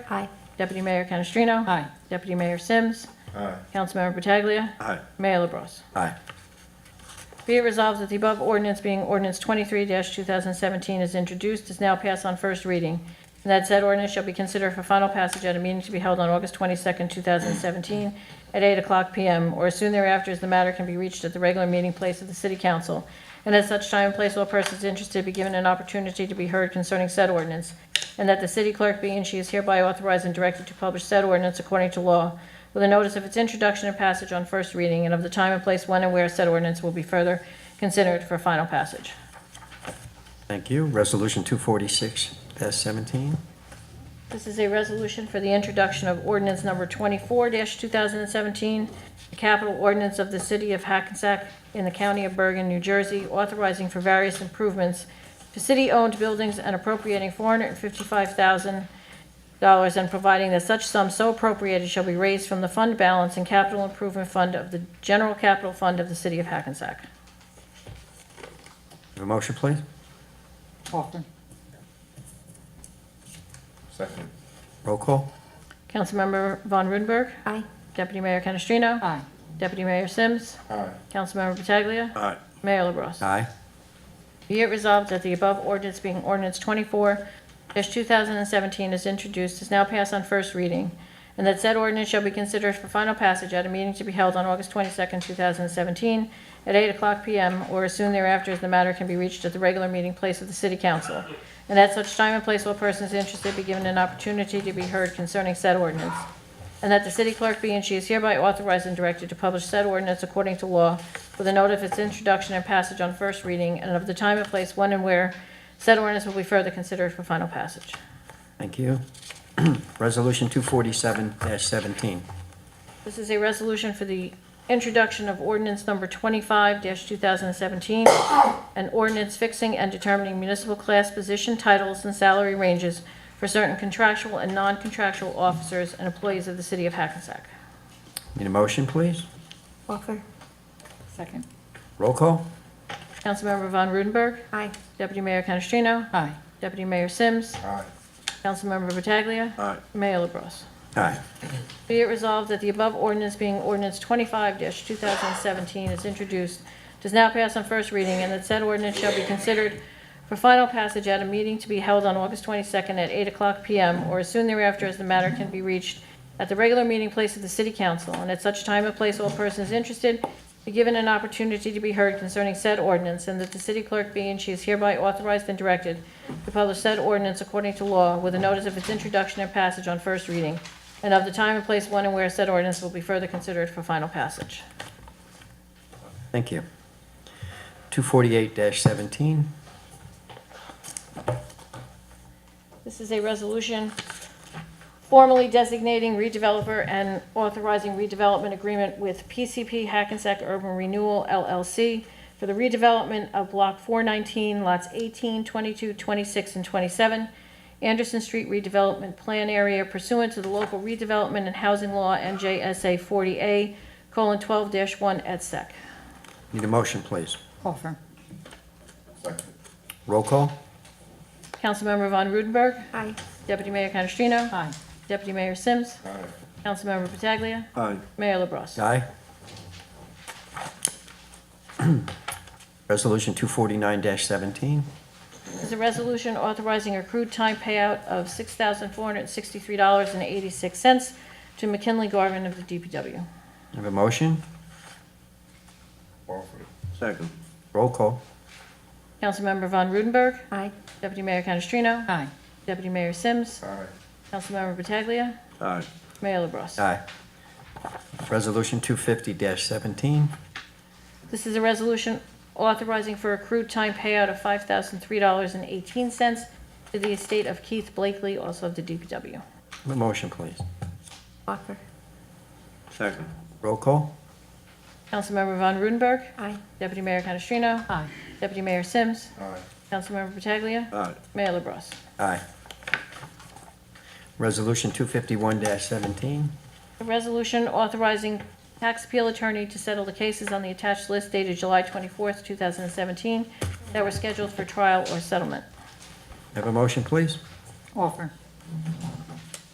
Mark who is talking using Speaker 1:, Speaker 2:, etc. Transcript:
Speaker 1: Aye. Deputy Mayor Canestrino?
Speaker 2: Aye.
Speaker 1: Deputy Mayor Sims?
Speaker 3: Aye.
Speaker 1: Councilmember Pataglia?
Speaker 3: Aye.
Speaker 1: Mayor LaBrus.
Speaker 3: Aye.
Speaker 1: Be it resolved that the above ordinance being ordinance 23-2017 is introduced, is now passed on first reading, and that said ordinance shall be considered for final passage at a meeting to be held on August 22nd, 2017, at 8 o'clock p.m. or as soon thereafter as the matter can be reached at the regular meeting place of the City Council, and at such time and place all persons interested be given an opportunity to be heard concerning said ordinance, and that the city clerk be and she is hereby authorized and directed to publish said ordinance according to law with a notice of its introduction and passage on first reading and of the time and place when and where said ordinance will be further considered for final passage.
Speaker 4: Thank you. Resolution 246-17.
Speaker 1: This is a resolution for the introduction of ordinance number 24-2017, the capital ordinance of the city of Hackensack in the county of Bergen, New Jersey, authorizing for various improvements to city-owned buildings and appropriating $455,000 and providing that such sum so appropriated shall be raised from the fund balance and capital improvement fund of the general capital fund of the city of Hackensack.
Speaker 4: Have a motion, please?
Speaker 2: Offer.
Speaker 3: Second.
Speaker 4: Roll call.
Speaker 1: Councilmember Von Rudenberg.
Speaker 2: Aye.
Speaker 1: Deputy Mayor Canestrino.
Speaker 2: Aye.
Speaker 1: Deputy Mayor Sims.
Speaker 3: Aye.
Speaker 1: Councilmember Pataglia.
Speaker 3: Aye.
Speaker 1: Mayor LaBrus.
Speaker 4: Aye.
Speaker 1: Be it resolved that the above ordinance being ordinance 24-2017 is introduced, is now passed on first reading, and that said ordinance shall be considered for final passage at a meeting to be held on August 22nd, 2017, at 8 o'clock p.m. or as soon thereafter as the matter can be reached at the regular meeting place of the City Council, and at such time and place all persons interested be given an opportunity to be heard concerning said ordinance, and that the city clerk be and she is hereby authorized and directed to publish said ordinance according to law with a note of its introduction and passage on first reading and of the time and place when and where said ordinance will be further considered for final passage.
Speaker 4: Thank you. Resolution 247-17.
Speaker 1: This is a resolution for the introduction of ordinance number 25-2017, an ordinance fixing and determining municipal class position titles and salary ranges for certain contractual and non-contractual officers and employees of the city of Hackensack.
Speaker 4: Need a motion, please?
Speaker 1: Offer.
Speaker 2: Second.
Speaker 4: Roll call.
Speaker 1: Councilmember Von Rudenberg.
Speaker 2: Aye.
Speaker 1: Deputy Mayor Canestrino.
Speaker 2: Aye.
Speaker 1: Deputy Mayor Sims.
Speaker 3: Aye.
Speaker 1: Councilmember Pataglia.
Speaker 3: Aye.
Speaker 1: Mayor LaBrus.
Speaker 4: Aye.
Speaker 1: Be it resolved that the above ordinance being ordinance 25-2017 is introduced, does now pass on first reading, and that said ordinance shall be considered for final passage at a meeting to be held on August 22nd at 8 o'clock p.m. or as soon thereafter as the matter can be reached at the regular meeting place of the city council, and at such time and place all persons interested be given an opportunity to be heard concerning said ordinance, and that the city clerk be and she is hereby authorized and directed to publish said ordinance according to law with a notice of its introduction and passage on first reading, and of the time and place when and where said ordinance will be further considered for final passage.
Speaker 4: Thank you. 248-17.
Speaker 1: This is a resolution formally designating redeveloper and authorizing redevelopment agreement with PCP Hackensack Urban Renewal LLC for the redevelopment of Block 419, lots 18, 22, 26, and 27, Anderson Street redevelopment plan area pursuant to the local redevelopment and housing law NJSA 40A: colon 40A:12-1 et sec.
Speaker 4: Need a motion, please?
Speaker 2: Offer.
Speaker 3: Second.
Speaker 4: Roll call.
Speaker 1: Councilmember Von Rudenberg.
Speaker 2: Aye.
Speaker 1: Deputy Mayor Canestrino.
Speaker 2: Aye.
Speaker 1: Deputy Mayor Sims.
Speaker 3: Aye.
Speaker 1: Councilmember Pataglia.
Speaker 3: Aye.
Speaker 1: Mayor LaBrus.
Speaker 4: Aye. Resolution 249-17.
Speaker 1: Is a resolution authorizing accrued time payout of $6,463.86 to McKinley Garvin of the DPW.
Speaker 4: Have a motion?
Speaker 3: Offer. Second.
Speaker 4: Roll call.
Speaker 1: Councilmember Von Rudenberg.
Speaker 2: Aye.
Speaker 1: Deputy Mayor Canestrino.
Speaker 2: Aye.
Speaker 1: Deputy Mayor Sims.
Speaker 3: Aye.
Speaker 1: Councilmember Pataglia.
Speaker 3: Aye.
Speaker 1: Mayor LaBrus.
Speaker 4: Aye. Resolution 250-17.
Speaker 1: This is a resolution authorizing for accrued time payout of $5,003.18 to the estate of Keith Blakely, also of the DPW.
Speaker 4: Have a motion, please?
Speaker 2: Offer.
Speaker 3: Second.
Speaker 4: Roll call.
Speaker 1: Councilmember Von Rudenberg.
Speaker 2: Aye.
Speaker 1: Deputy Mayor Canestrino.
Speaker 2: Aye.
Speaker 1: Deputy Mayor Sims.
Speaker 3: Aye.
Speaker 1: Councilmember Pataglia.
Speaker 3: Aye.
Speaker 1: Mayor LaBrus.
Speaker 4: Aye. Resolution 251-17.
Speaker 1: A resolution authorizing tax appeal attorney to settle the cases on the attached list dated July 24th, 2017, that were scheduled for trial or settlement.
Speaker 4: Have a motion, please?
Speaker 2: Offer.